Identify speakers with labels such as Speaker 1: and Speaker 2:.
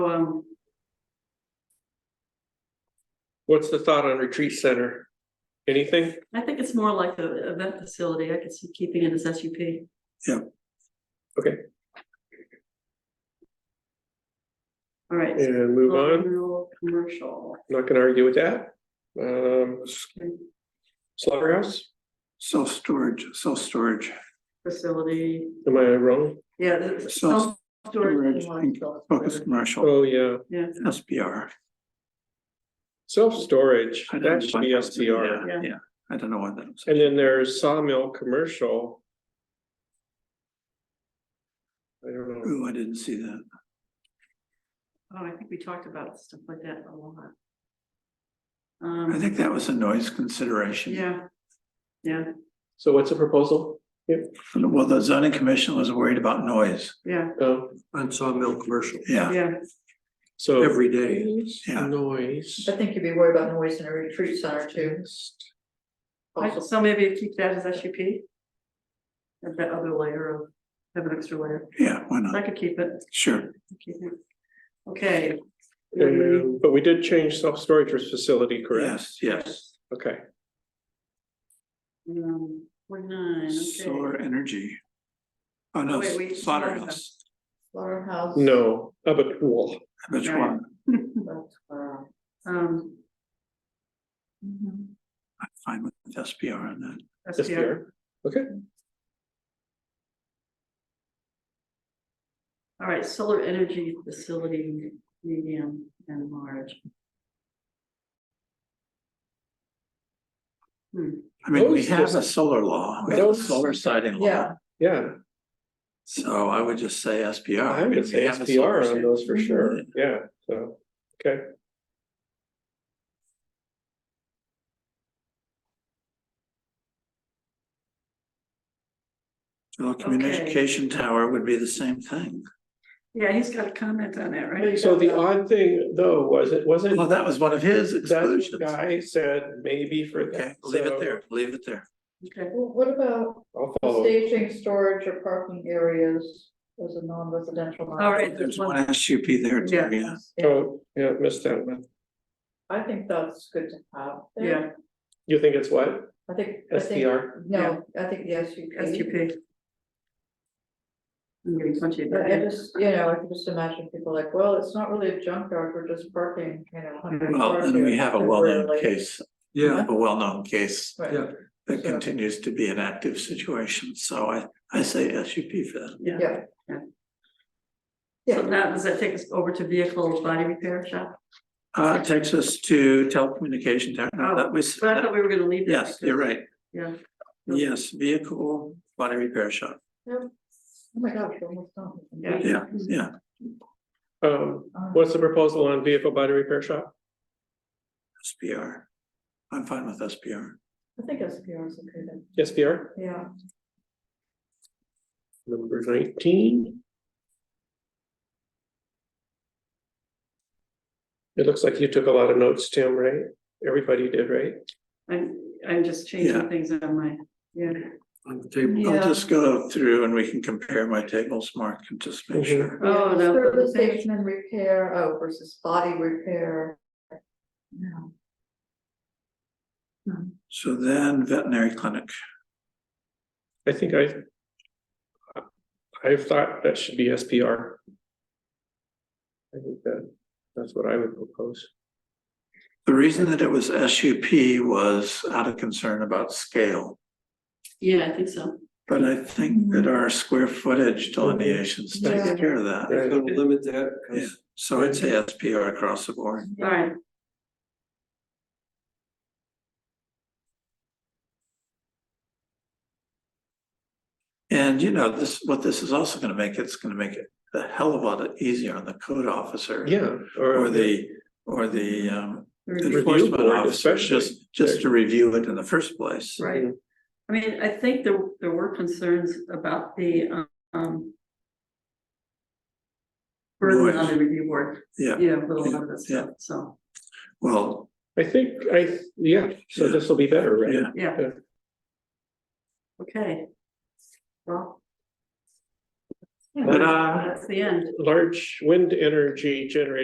Speaker 1: um,
Speaker 2: What's the thought on retreat center? Anything?
Speaker 1: I think it's more like the event facility. I could see keeping it as S U P.
Speaker 3: Yeah.
Speaker 2: Okay.
Speaker 1: All right.
Speaker 2: And move on,
Speaker 3: Mm-hmm.
Speaker 1: Rural Commercial.
Speaker 2: not gonna argue with that. Um, slaughterhouse,
Speaker 3: Self-storage, self-storage,
Speaker 1: Facility,
Speaker 2: am I wrong?
Speaker 1: yeah. the-
Speaker 3: Self-
Speaker 1: self-storage
Speaker 3: storage,
Speaker 1: and
Speaker 3: focus
Speaker 1: self-storage.
Speaker 3: commercial,
Speaker 2: Oh, yeah,
Speaker 1: Yeah,
Speaker 3: SBR.
Speaker 2: self-storage,
Speaker 3: I don't
Speaker 2: that
Speaker 3: know
Speaker 2: should be
Speaker 3: what-
Speaker 2: STR.
Speaker 1: Yeah.
Speaker 3: Yeah, yeah. I don't know what that was.
Speaker 2: And then there's sawmill commercial. I don't know.
Speaker 3: Ooh, I didn't see that.
Speaker 1: oh, I think we talked about stuff like that a lot.
Speaker 3: I
Speaker 1: Um,
Speaker 3: think that was a noise consideration.
Speaker 1: yeah, yeah,
Speaker 2: So what's the proposal?
Speaker 3: Well, the zoning commission was worried about noise.
Speaker 1: yeah,
Speaker 2: Oh,
Speaker 4: On sawmill commercial,
Speaker 3: Yeah,
Speaker 1: yeah,
Speaker 2: so.
Speaker 4: every day,
Speaker 3: Yeah.
Speaker 2: Noise.
Speaker 5: I think you'd be worried about noise in a retreat center too.
Speaker 1: I-
Speaker 5: Also,
Speaker 1: so maybe keep that as S U P. And that other layer of, have an extra layer,
Speaker 3: yeah, why
Speaker 1: I
Speaker 3: not?
Speaker 1: could keep it.
Speaker 3: Sure.
Speaker 1: Keep it. Okay.
Speaker 2: And- But we did change self-storage for facility, correct?
Speaker 3: Yes, yes.
Speaker 2: Okay,
Speaker 1: Um, forty-nine, okay.
Speaker 3: Solar energy. Oh,
Speaker 1: Oh,
Speaker 3: no,
Speaker 1: wait, we-
Speaker 3: slaughterhouse.
Speaker 5: slaughterhouse.
Speaker 2: no, up a pool.
Speaker 3: Which
Speaker 1: Right.
Speaker 3: one?
Speaker 5: but, uh,
Speaker 1: Um, mm-hmm.
Speaker 5: mhm.
Speaker 3: I'm fine with SBR on that.
Speaker 1: SPR,
Speaker 2: Okay,
Speaker 1: all right, solar energy facility, medium and large. Hmm,
Speaker 3: I mean, we
Speaker 2: Those
Speaker 3: have a
Speaker 2: just-
Speaker 3: solar law, we have a
Speaker 2: those-
Speaker 3: solar siding law,
Speaker 5: Yeah.
Speaker 2: yeah,
Speaker 3: so I would just say SBR.
Speaker 2: I
Speaker 3: mean,
Speaker 2: would
Speaker 3: we
Speaker 2: say
Speaker 3: have a
Speaker 2: SPR
Speaker 3: solar
Speaker 2: on
Speaker 3: siding.
Speaker 2: those for sure, yeah, so, okay.
Speaker 3: Well, communication tower would be the same thing.
Speaker 1: yeah, he's got a comment on that, right?
Speaker 2: So the odd thing though was it wasn't,
Speaker 3: Well, that was one of his
Speaker 2: that
Speaker 3: exclusions.
Speaker 2: guy said maybe for
Speaker 3: Okay,
Speaker 2: that.
Speaker 3: leave
Speaker 2: so
Speaker 3: it there, leave it there.
Speaker 1: Okay,
Speaker 5: Well, What about
Speaker 2: I'll
Speaker 3: Oh.
Speaker 2: follow.
Speaker 5: staging, storage or parking areas as a non-residential? lot?
Speaker 1: All right.
Speaker 3: There's one SUP there too,
Speaker 1: Yeah.
Speaker 3: yeah.
Speaker 5: Yeah,
Speaker 2: Oh, yeah, missed that one.
Speaker 5: I think that's good to have. there.
Speaker 1: yeah,
Speaker 2: You think it's what?
Speaker 5: I think, I think,
Speaker 2: SPR?
Speaker 5: no, I think the S U P.
Speaker 1: S U P. I'm getting punchy.
Speaker 5: But I just, you know, I can just imagine people like, well, it's not really a junkyard, we're just parking, you know. a hundred
Speaker 3: Well,
Speaker 5: cars
Speaker 3: and we
Speaker 5: here
Speaker 3: have a well-known
Speaker 5: temporarily."
Speaker 3: case, we
Speaker 4: yeah,
Speaker 3: have a well-known case
Speaker 5: Right.
Speaker 4: Yeah.
Speaker 3: that continues to be an active situation, so I, I say SUP for that.
Speaker 1: Yeah,
Speaker 5: Yeah.
Speaker 1: Yeah. so
Speaker 5: Yeah,
Speaker 1: now does that take us over to vehicle body repair shop?
Speaker 3: Uh, it takes us to telecommunication tower, no, that was,
Speaker 1: But I thought we were gonna leave that.
Speaker 3: yes, you're
Speaker 1: because-
Speaker 3: right,
Speaker 1: Yeah,
Speaker 3: yes, vehicle body repair shop,
Speaker 5: oh my gosh, we're almost done.
Speaker 1: Yeah.
Speaker 3: yeah, yeah.
Speaker 2: Um,
Speaker 5: Um,
Speaker 2: what's the proposal on vehicle body repair shop?
Speaker 3: SPR. I'm fine with SPR.
Speaker 5: I think S P R is okay then,
Speaker 2: SPR?
Speaker 5: yeah.
Speaker 2: Number nineteen. It looks like you took a lot of notes, Tim, right? Everybody did, right?
Speaker 1: I'm, I'm just
Speaker 3: Yeah.
Speaker 1: changing things on my, yeah,
Speaker 4: on the table.
Speaker 3: I'll
Speaker 5: Yeah.
Speaker 3: just go through and we can compare my tables, Mark, and just make
Speaker 2: Mhm.
Speaker 4: Mm-hmm.
Speaker 3: sure.
Speaker 1: Oh,
Speaker 5: Yeah,
Speaker 1: no.
Speaker 5: Service station and repair, oh, versus body repair. No.
Speaker 3: So then veterinary clinic,
Speaker 2: I think I. I thought that should be SPR. I think that, that's what I would propose.
Speaker 3: the reason that it was SUP was out of concern about scale.
Speaker 1: yeah, I think so.
Speaker 3: But I think that our square footage
Speaker 4: Mm-hmm.
Speaker 3: delineations takes
Speaker 5: Mm-hmm. Yeah.
Speaker 3: care of
Speaker 4: I'm
Speaker 3: that.
Speaker 4: gonna limit that, because
Speaker 3: So I'd say SPR across the board.
Speaker 1: All right,
Speaker 3: And you know, this, what this is also gonna make, it's gonna make it a hell of a lot easier on the code officer.
Speaker 2: Yeah,
Speaker 3: Or the, or the um
Speaker 2: Review
Speaker 3: enforcement
Speaker 2: board
Speaker 3: officer,
Speaker 2: especially.
Speaker 3: just, just to review it in the first place.
Speaker 1: right. I mean, I think there, there were concerns about the, um. Burden on the review board,
Speaker 3: Yeah,
Speaker 1: you know, with a lot of this
Speaker 3: Yeah.
Speaker 1: stuff, so,
Speaker 3: well,
Speaker 2: I think I, yeah, so this will be better, right?
Speaker 3: yeah,
Speaker 1: yeah.
Speaker 2: Yeah.
Speaker 1: Okay. Well. Yeah,
Speaker 3: Ta-da.
Speaker 1: That's the end.
Speaker 3: Uh,
Speaker 2: large wind uh, energy generator